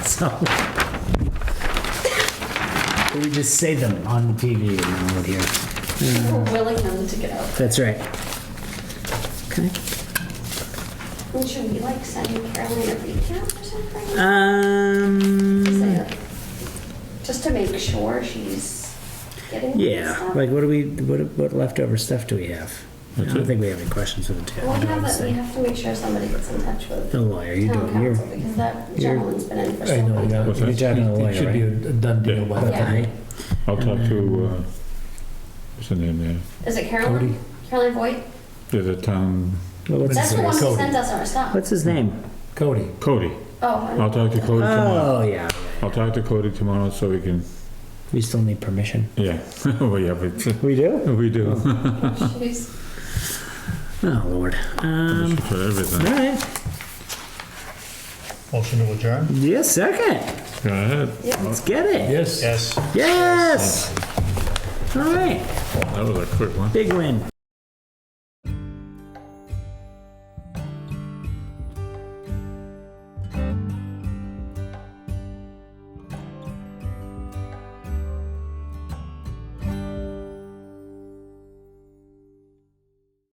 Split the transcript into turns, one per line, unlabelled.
so. We just say them on the TV and all here.
We're willing them to get out.
That's right.
Okay.
And should we like send Caroline a recap or something? Say,
Um,
like, Just to make sure she's getting this
Yeah,
stuff.
like what do we, what, what leftover stuff do we have? I don't think we have any questions for the
Well, we have, a- we
town.
have to make sure somebody gets in touch with
The lawyer, you
town
doing your,
council because that
you're-
gentleman's been in for
I
so
know,
long.
yeah,
What's
you're
that?
talking
It- it
it
should
should
be
be a done
deal
deal
by
by
that
that
time.
time.
right?
I'll talk to, uh, what's her name there?
Is it Caroline?
Cody.
Caroline Voigt?
There's a town,
Well, what's
That's
his,
the one who
Cody.
sent us our stuff.
what's his name?
Cody,
Cody.
Oh. I
I'll talk to Cody tomorrow.
Oh, yeah,
I'll talk to Cody tomorrow so we can,
we still need permission.
yeah, well, yeah, but
We do?
we do.
She's-
Oh, Lord. Um,
For
all
everything.
right,
Motion to adjourn?
yeah, second,
Go ahead.
let's get it.
yes.
Yes.
Yes! All right,
That was a quick one.
big win.